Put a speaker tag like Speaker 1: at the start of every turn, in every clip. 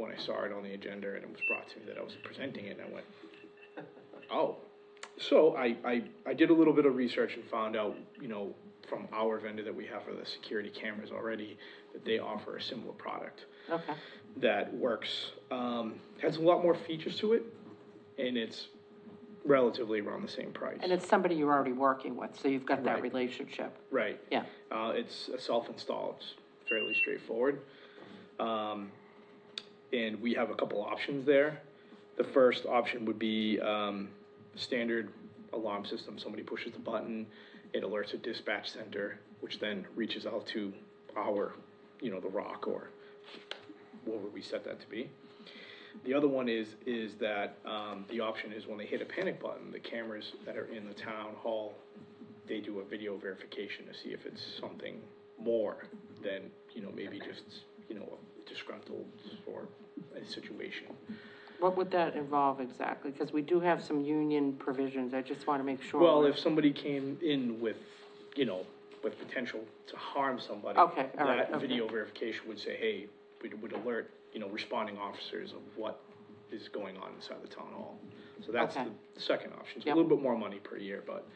Speaker 1: I saw it on the agenda and it was brought to me that I was presenting it, and I went, oh. So I, I, I did a little bit of research and found out, you know, from our vendor that we have for the security cameras already, that they offer a similar product
Speaker 2: Okay,
Speaker 1: that works. Um, has a lot more features to it, and it's relatively around the same price.
Speaker 2: and it's somebody you're already working with, so you've got that
Speaker 1: Right.
Speaker 2: relationship,
Speaker 1: Right.
Speaker 2: yeah.
Speaker 1: Uh, it's a self-install, it's fairly straightforward. Um, and we have a couple options there. The first option would be, um, standard alarm system, somebody pushes the button, it alerts a dispatch center, which then reaches out to our, you know, the rock or what would we set that to be? The other one is, is that, um, the option is when they hit a panic button, the cameras that are in the town hall, they do a video verification to see if it's something more than, you know, maybe just, you know, disgruntled or a situation.
Speaker 2: What would that involve exactly? Because we do have some union provisions, I just want to make sure.
Speaker 1: Well,
Speaker 2: we're-
Speaker 1: if somebody came in with, you know, with potential to harm somebody.
Speaker 2: Okay, all right,
Speaker 1: That
Speaker 2: okay.
Speaker 1: video verification would say, hey, we would alert, you know, responding officers of what is going on inside the town hall. So that's
Speaker 2: Okay.
Speaker 1: the second option. It's a
Speaker 2: Yep.
Speaker 1: little bit more money per year, but,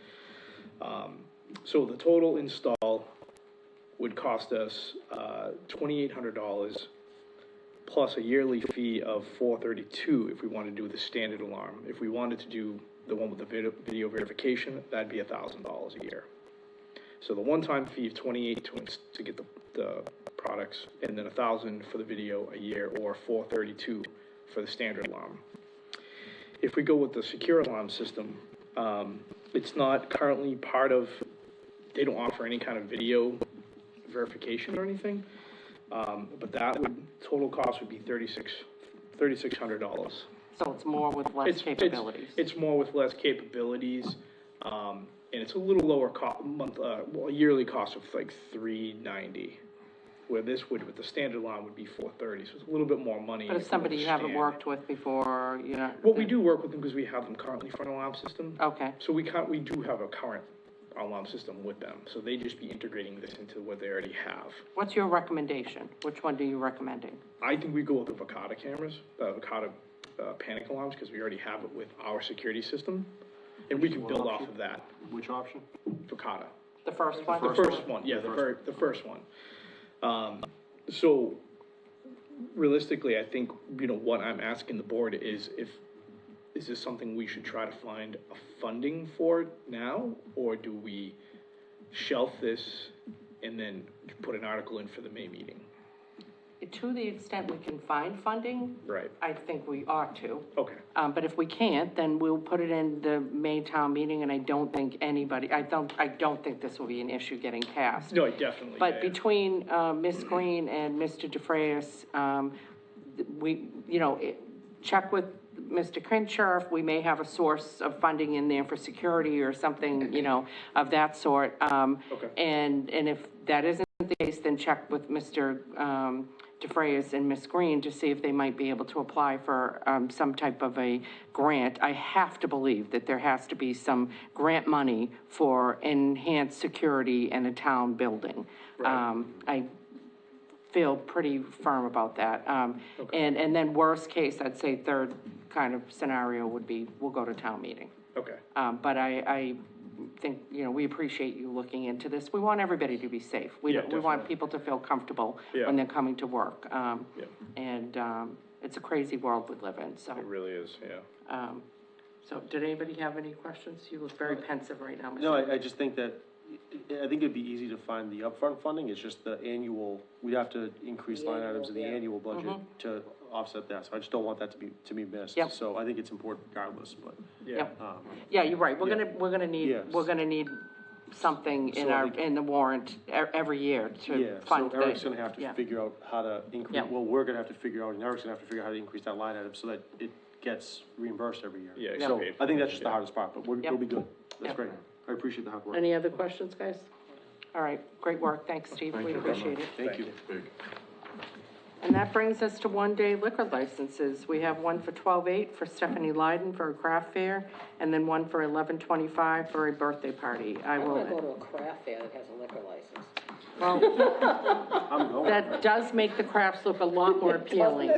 Speaker 1: um, so the total install would cost us, uh, twenty-eight hundred dollars plus a yearly fee of four thirty-two if we wanted to do the standard alarm. If we wanted to do the one with the video, video verification, that'd be a thousand dollars a year. So the one-time fee of twenty-eight to, ins- to get the, the products, and then a thousand for the video a year, or four thirty-two for the standard alarm. If we go with the secure alarm system, um, it's not currently part of, they don't offer any kind of video verification or anything. Um, but that would, total cost would be thirty-six, thirty-six hundred dollars.
Speaker 2: So it's more with less
Speaker 1: It's- it's-
Speaker 2: capabilities.
Speaker 1: It's more with less capabilities, um, and it's a little lower co- month, uh, well, yearly cost of like three ninety. Where this would, with the standard line would be four thirty, so it's a little bit more money.
Speaker 2: But if somebody you haven't
Speaker 1: Understand.
Speaker 2: worked with before, you know.
Speaker 1: Well, we do work with them because we have them currently for an alarm system.
Speaker 2: Okay,
Speaker 1: So we can't, we do have a current alarm system with them, so they just be integrating this into what they already have.
Speaker 2: what's your recommendation? Which one do you recommending?
Speaker 1: I think we go with the Vicata cameras, uh, Vicata, uh, panic alarms, because we already have it with our security system. And we can build off of that,
Speaker 3: Which option?
Speaker 1: Vicata.
Speaker 2: The first one?
Speaker 1: The first one, yeah, the very, the first one. Um, so realistically, I think, you know, what I'm asking the board is if, is this something we should try to find a funding for now? Or do we shelf this and then put an article in for the May meeting?
Speaker 2: To the extent we can find funding,
Speaker 1: Right,
Speaker 2: I think we ought to.
Speaker 1: okay.
Speaker 2: Um, but if we can't, then we'll put it in the May town meeting, and I don't think anybody, I don't, I don't think this will be an issue getting passed.
Speaker 1: No, definitely. yeah,
Speaker 2: But
Speaker 1: yeah.
Speaker 2: between, uh, Ms. Green and Mr. DeFrayis, um, th- we, you know, it- check with Mr. Crenshaw, if we may have a source of funding in there for security or something, you know, of that sort. Um,
Speaker 1: Okay.
Speaker 2: and, and if that isn't the case, then check with Mr. um, DeFrayis and Ms. Green to see if they might be able to apply for um, some type of a grant. I have to believe that there has to be some grant money for enhanced security in a town building. Um, I feel pretty firm about that. Um, And, and then worst case, I'd say third kind of scenario would be, we'll go to town meeting.
Speaker 1: Okay,
Speaker 2: Um, but I, I think, you know, we appreciate you looking into this. We want everybody to be safe. We,
Speaker 1: Yeah,
Speaker 2: don't- we want
Speaker 1: definitely.
Speaker 2: people to feel comfortable
Speaker 1: Yeah.
Speaker 2: when they're coming to work. Um,
Speaker 1: Yeah.
Speaker 2: and, um, it's a crazy world we live in, so,
Speaker 1: it really is, yeah.
Speaker 2: um, so did anybody have any questions? You look very pensive right now, Mr.
Speaker 3: No, I, I just think that, I I think it'd be easy to find the upfront funding, it's just the annual, we'd have to increase line items in the annual budget to offset that, so I just don't want that to be, to be missed.
Speaker 2: Yep.
Speaker 3: So I think it's important regardless, but,
Speaker 1: Yeah,
Speaker 2: Yep.
Speaker 3: um,
Speaker 2: Yeah, you're right, we're gonna, we're gonna need,
Speaker 3: Yes.
Speaker 2: we're gonna need something in
Speaker 3: So
Speaker 2: our,
Speaker 3: we-
Speaker 2: in the warrant e- every year
Speaker 3: yeah,
Speaker 2: to
Speaker 3: so
Speaker 2: fund the.
Speaker 3: Eric's gonna have
Speaker 2: yeah.
Speaker 3: to figure out how to increase,
Speaker 2: Yeah.
Speaker 3: well, we're gonna have to figure out, and Eric's gonna have to figure out how to increase that line item so that it gets reimbursed every year.
Speaker 1: Yeah, it's
Speaker 3: So
Speaker 1: paid for,
Speaker 3: I think that's just the
Speaker 1: yeah.
Speaker 3: hardest part, but we're,
Speaker 2: Yep.
Speaker 3: we'll be good,
Speaker 2: Yep.
Speaker 3: that's great, I appreciate the hard work.
Speaker 2: Any other questions, guys? All right, great work, thanks, Steve, we appreciate it.
Speaker 3: Thank you.
Speaker 2: And that brings us to one-day liquor licenses. We have one for 12/8 for Stephanie Lyden for a craft fair, and then one for 11/25 for a birthday party. I
Speaker 4: I wanna go to
Speaker 2: will,
Speaker 4: a craft fair that has a liquor license.
Speaker 2: well,
Speaker 3: I'm going.
Speaker 2: that does make the crafts look a lot more appealing.